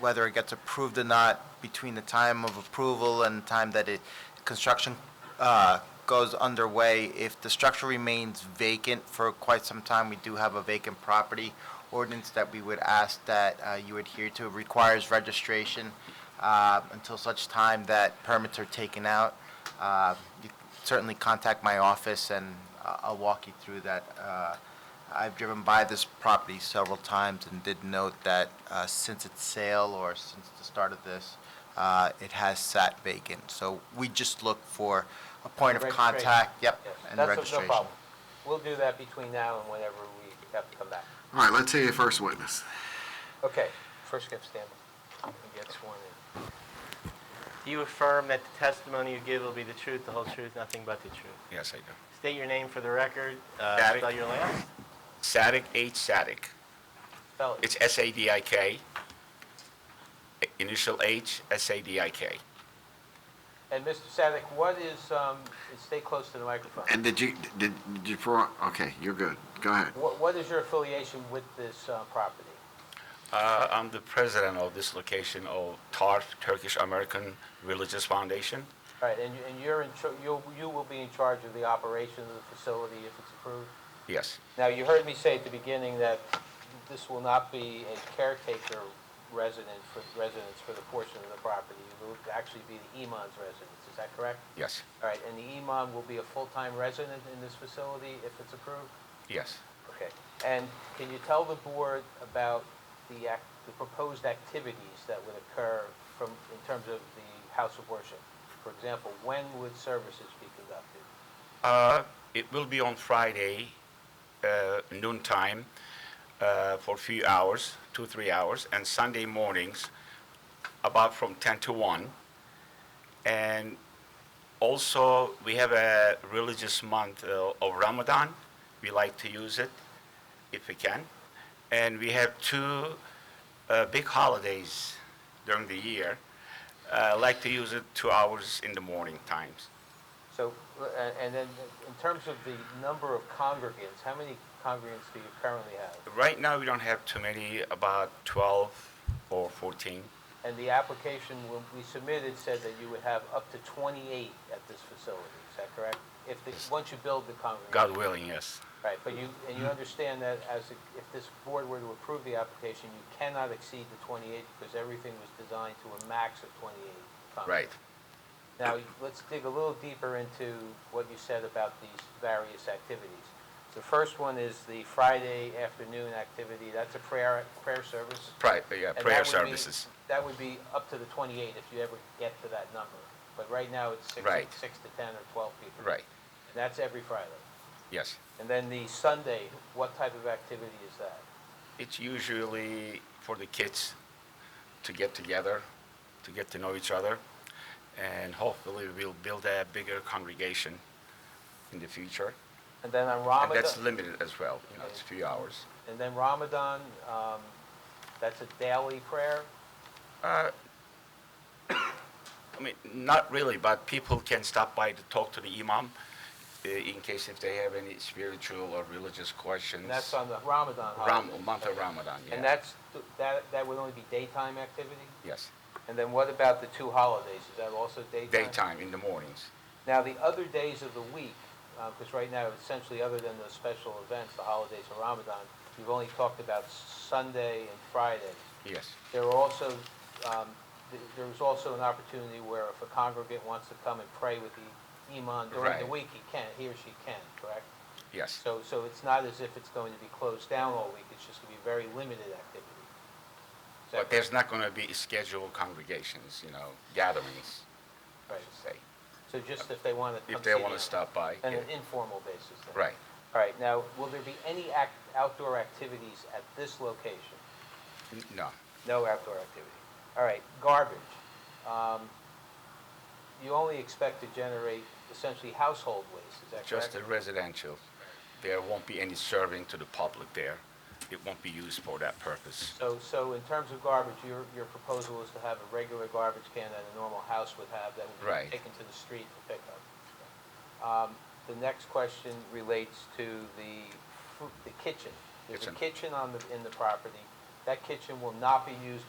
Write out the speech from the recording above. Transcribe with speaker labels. Speaker 1: whether it gets approved or not, between the time of approval and the time that it, construction uh, goes underway, if the structure remains vacant for quite some time, we do have a vacant property ordinance that we would ask that uh, you adhere to. It requires registration uh, until such time that permits are taken out. Uh, You can Certainly contact my office, and I- I'll walk you through that uh, I've driven by this property several times and did note that uh, since its sale or since the start of this, uh, it has sat vacant. So we just look for a point of
Speaker 2: Registration.
Speaker 1: contact, yep,
Speaker 2: Yes,
Speaker 1: and
Speaker 2: That's no
Speaker 1: registration.
Speaker 2: problem. We'll do that between now and whenever we have to come back.
Speaker 3: All right, let's hear your first witness.
Speaker 2: Okay, first get Stanley. He gets sworn in.
Speaker 4: Do you affirm that the testimony you give will be the truth, the whole truth, nothing but the truth?
Speaker 5: Yes, I do.
Speaker 4: State your name for the record, uh,
Speaker 5: Daddy.
Speaker 4: spell your last.
Speaker 5: Sadik H. Sadik.
Speaker 2: Spell it.
Speaker 5: It's S-A-D-I-K. Initial H, S-A-D-I-K.
Speaker 2: And Mr. Sadek, what is, um, stay close to the microphone.
Speaker 3: And did you, did, did you, pro- okay, you're good. Go ahead.
Speaker 2: What, what is your affiliation with this, uh, property?
Speaker 5: Uh, I'm the president of this location of TARF, Turkish American Religious Foundation.
Speaker 2: All right, and you, and you're in, char- you'll, you will be in charge of the operation of the facility if it's approved?
Speaker 5: Yes,
Speaker 2: Now, you heard me say at the beginning that this will not be a caretaker residence for, residence for the portion of the property. It will actually be the imam's residence, is that correct?
Speaker 5: yes,
Speaker 2: All right, and the E imam will be a full-time resident in this facility if it's approved?
Speaker 5: yes.
Speaker 2: Okay. And can you tell the board about the act, the proposed activities that would occur from, in terms of the house of worship? For example, when would services be conducted?
Speaker 5: Uh, It will be on Friday, uh, noon time, uh, for a few hours, two, three hours, and Sunday mornings, about from 10 to 1. And also, we have a religious month uh, of Ramadan. We like to use it if we can. And we have two uh, big holidays during the year. Uh, like to use it two hours in the morning times.
Speaker 2: So, uh, and then in terms of the number of congregants, how many congregants do you currently have?
Speaker 5: Right now, we don't have too many, about 12 or 14.
Speaker 2: And the application when we submitted said that you would have up to 28 at this facility, is that correct? If, the- once you build the congregation.
Speaker 5: God willing, yes.
Speaker 2: Right, but you, and
Speaker 5: Mm-hmm.
Speaker 2: you understand that as, a- if this board were to approve the application, you cannot exceed the 28 because everything was designed to a max of 28
Speaker 5: Right.
Speaker 2: congregants. Now, let's dig a little deeper into what you said about these various activities. The first one is the Friday afternoon activity, that's a prayer, prayer service.
Speaker 5: Pri- uh, yeah,
Speaker 2: and
Speaker 5: prayer
Speaker 2: that would be-
Speaker 5: services.
Speaker 2: That would be up to the 28 if you ever get to that number. But right now, it's six,
Speaker 5: Right.
Speaker 2: six to 10 or 12 people.
Speaker 5: Right,
Speaker 2: And that's every Friday.
Speaker 5: yes.
Speaker 2: And then the Sunday, what type of activity is that?
Speaker 5: It's usually for the kids to get together, to get to know each other, and hopefully we'll build a bigger congregation in the future.
Speaker 2: And then on
Speaker 5: And that's
Speaker 2: Ramadan,
Speaker 5: limited as well, you know, it's a few hours.
Speaker 2: and then Ramadan, um, that's a daily prayer?
Speaker 5: I mean, not really, but people can stop by to talk to the imam uh, in case if they have any spiritual or religious questions.
Speaker 2: And that's on the Ramadan
Speaker 5: Ram,
Speaker 2: holiday?
Speaker 5: month of Ramadan, yeah.
Speaker 2: Uh, And that's, that, that would only be daytime activity?
Speaker 5: Yes,
Speaker 2: And then what about the two holidays? Is that also daytime?
Speaker 5: daytime, in the mornings.
Speaker 2: Now, the other days of the week, because right now, essentially, other than those special events, the holidays of Ramadan, you've only talked about Sunday and Friday.
Speaker 5: Yes,
Speaker 2: There were also, um, th- there was also an opportunity where if a congregant wants to come and pray with the imam during the
Speaker 5: Right.
Speaker 2: week, he can, he or she can, correct?
Speaker 5: yes,
Speaker 2: So, so it's not as if it's going to be closed down all week, it's just going to be very limited activity. Is that
Speaker 5: but there's not going to be scheduled congregations, you know, gatherings, I
Speaker 2: correct?
Speaker 5: should say,
Speaker 2: So just if they want to come
Speaker 5: if they
Speaker 2: see
Speaker 5: want
Speaker 2: the-
Speaker 5: to stop by.
Speaker 2: On an
Speaker 5: yeah.
Speaker 2: informal basis then?
Speaker 5: Right.
Speaker 2: All right, now, will there be any act, outdoor activities at this location?
Speaker 5: N- No,
Speaker 2: No outdoor activity. All right, garbage. Um, You only expect to generate essentially household waste, is that
Speaker 5: just
Speaker 2: correct?
Speaker 5: the residential. There won't be any serving to the public there. It won't be used for that purpose.
Speaker 2: So, so in terms of garbage, your, your proposal is to have a regular garbage can that a normal house would have that would
Speaker 5: Right.
Speaker 2: be taken to the street for pickup. Um, The next question relates to the, fu- the kitchen. There's a
Speaker 5: Kitchen.
Speaker 2: kitchen on the, in the property. That kitchen will not be used by